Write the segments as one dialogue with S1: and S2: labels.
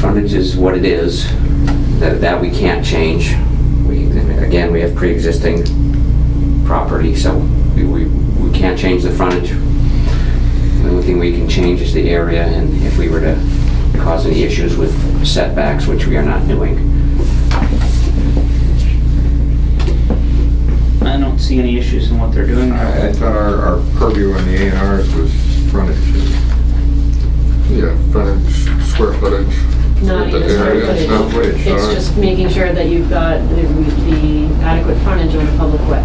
S1: frontage is what it is, that, that we can't change. We, again, we have pre-existing property, so we, we we can't change the frontage. The only thing we can change is the area, and if we were to cause any issues with setbacks, which we are not doing.
S2: I don't see any issues in what they're doing.
S3: I I thought our, our purview on the A and Rs was frontage.
S4: Yeah, frontage, square footage.
S5: Not
S4: The
S5: even square
S4: area, it's not
S5: footage.
S4: footage,
S5: It's
S4: alright.
S5: just making sure that you've got the the adequate frontage on the public way,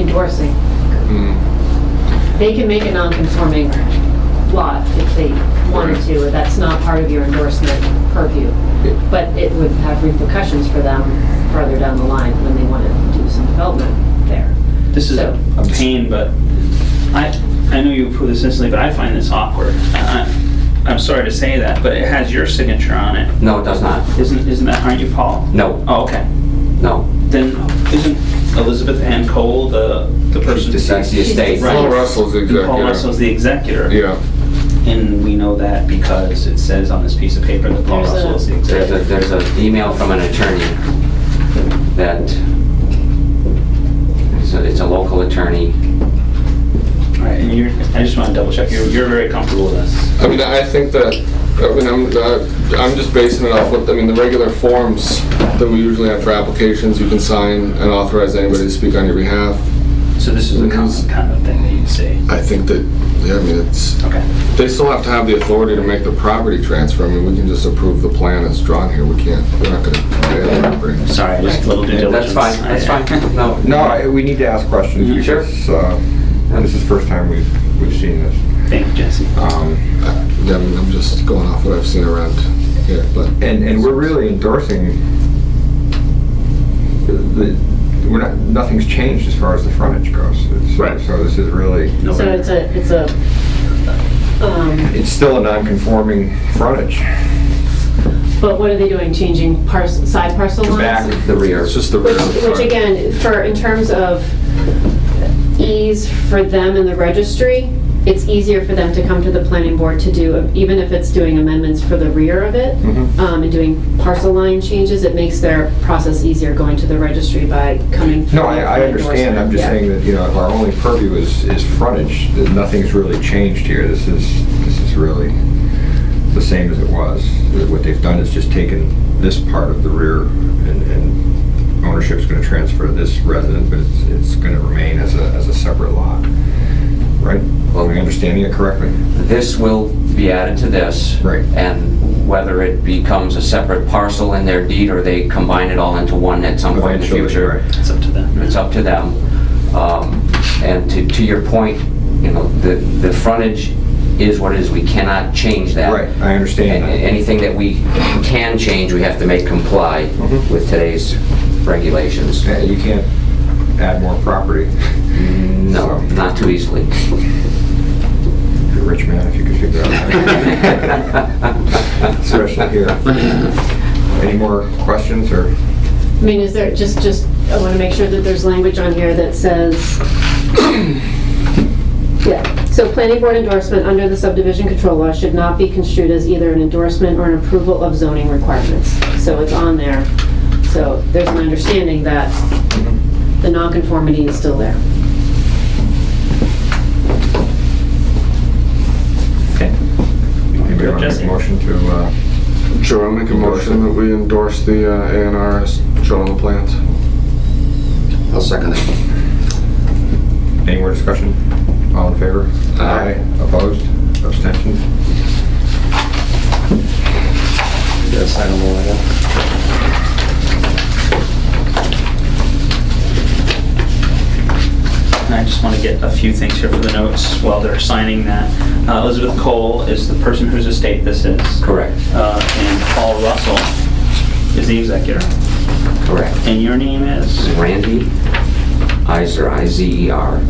S5: endorsing.
S4: Mm,
S5: They can make a non-conforming lot if they wanted to, that's not part of your endorsement purview. But it would have repercussions for them further down the line when they want to do some development there.
S2: This is a a pain, but I, I know you approve this instantly, but I find this awkward. I- I- I'm sorry to say that, but it has your signature on it.
S1: No, it does not.
S2: Isn't, isn't that, aren't you Paul?
S1: No,
S2: Oh, okay.
S1: no.
S2: Then isn't Elizabeth Ann Cole the, the person?
S1: She's deceased. The estate.
S2: Right.
S4: Paul Russell's the
S2: And Paul
S4: executor.
S2: Russell's the executor.
S4: Yeah,
S2: And we know that because it says on this piece of paper that Paul
S5: There's a-
S2: Russell is the
S1: There's a,
S2: executor.
S1: there's an email from an attorney that, it's a, it's a local attorney.
S2: Right, and you're, I just want to double check, you're, you're very comfortable with this.
S4: I mean, I think that, I mean, I'm, uh, I'm just basing it off what, I mean, the regular forms that we usually have for applications, you can sign and authorize anybody to speak on your behalf.
S2: So this is a common kind of thing that you see.
S4: I think that, yeah, I mean, it's,
S2: Okay.
S4: they still have to have the authority to make the property transfer. I mean, we can just approve the plan as drawn here, we can't, we're not gonna. pay the property.
S2: Sorry, just a little due
S1: That's
S2: diligence.
S1: fine, that's fine. No,
S3: No, I- we need to ask questions.
S4: Mm-hmm.
S2: Mhm.
S1: Sure.
S3: because, uh, This is the first time we've, we've seen this.
S2: Thank you, Jesse.
S3: Um,
S4: Yeah, I mean, I'm just going off what I've seen around here, but.
S3: And, and we're really endorsing, the- the, we're not, nothing's changed as far as the frontage goes. It's-
S4: Right.
S3: So this is really,
S2: No
S5: So
S2: worries.
S5: it's a, it's a, um,
S3: it's still a non-conforming frontage.
S5: but what are they doing, changing parcel, side parcel lines?
S3: Back,
S1: the rear.
S4: It's just the rear.
S5: Which, which again, for, in terms of ease for them in the registry, it's easier for them to come to the planning board to do, even if it's doing amendments for the rear of it,
S3: Mhm.
S5: um, and doing parcel line changes, it makes their process easier going to the registry by coming.
S3: No, I, I
S5: for
S3: understand, I'm just saying
S5: endorsement,
S3: that, you know, if our only purview is, is frontage, that nothing's really changed here. This is, this is really the same as it was. What they've done is just taken this part of the rear and, and ownership's gonna transfer to this resident, but it's, it's gonna remain as a, as a separate lot. Right? Am I understanding it correctly?
S1: This will be added to this.
S3: Right.
S1: And whether it becomes a separate parcel in their deed or they combine it all into one at some point in the
S3: Eventually,
S1: future.
S3: right.
S2: It's up to them.
S1: It's up to them. Um, And to, to your point, you know, the, the frontage is what it is. We cannot change that.
S3: Right, I understand
S1: And
S3: that.
S1: Anything that we can change, we have to make comply
S3: Mhm.
S1: with today's regulations.
S3: Yeah, You can't add more property.
S1: No, not too easily.
S3: You're a rich man if you could figure out how to. Especially here. Any more questions or?
S5: yeah. I mean, is there, just, just, I wanna make sure that there's language on here that says, yeah, so planning board endorsement under the subdivision control law should not be construed as either an endorsement or an approval of zoning requirements. So it's on there, so there's an understanding that the nonconformity is still there.
S2: Okay. You want to go,
S3: Anybody want to make
S2: Jesse?
S3: a motion to, uh,
S4: Sure, I'll make a motion that we endorse the uh, A and R as shown on the plans.
S6: I'll second it.
S3: any more discussion? All in favor?
S6: Aye.
S3: Opposed? Abstentions?
S6: Yes, I don't know why not.
S2: And I just want to get a few things here for the notes while they're signing that. Uh, Elizabeth Cole is the person whose estate this is.
S1: Correct,
S2: Uh, And Paul Russell is the executor.
S1: correct.
S2: And your name is?
S1: E Randy Iser, I-Z-E-R.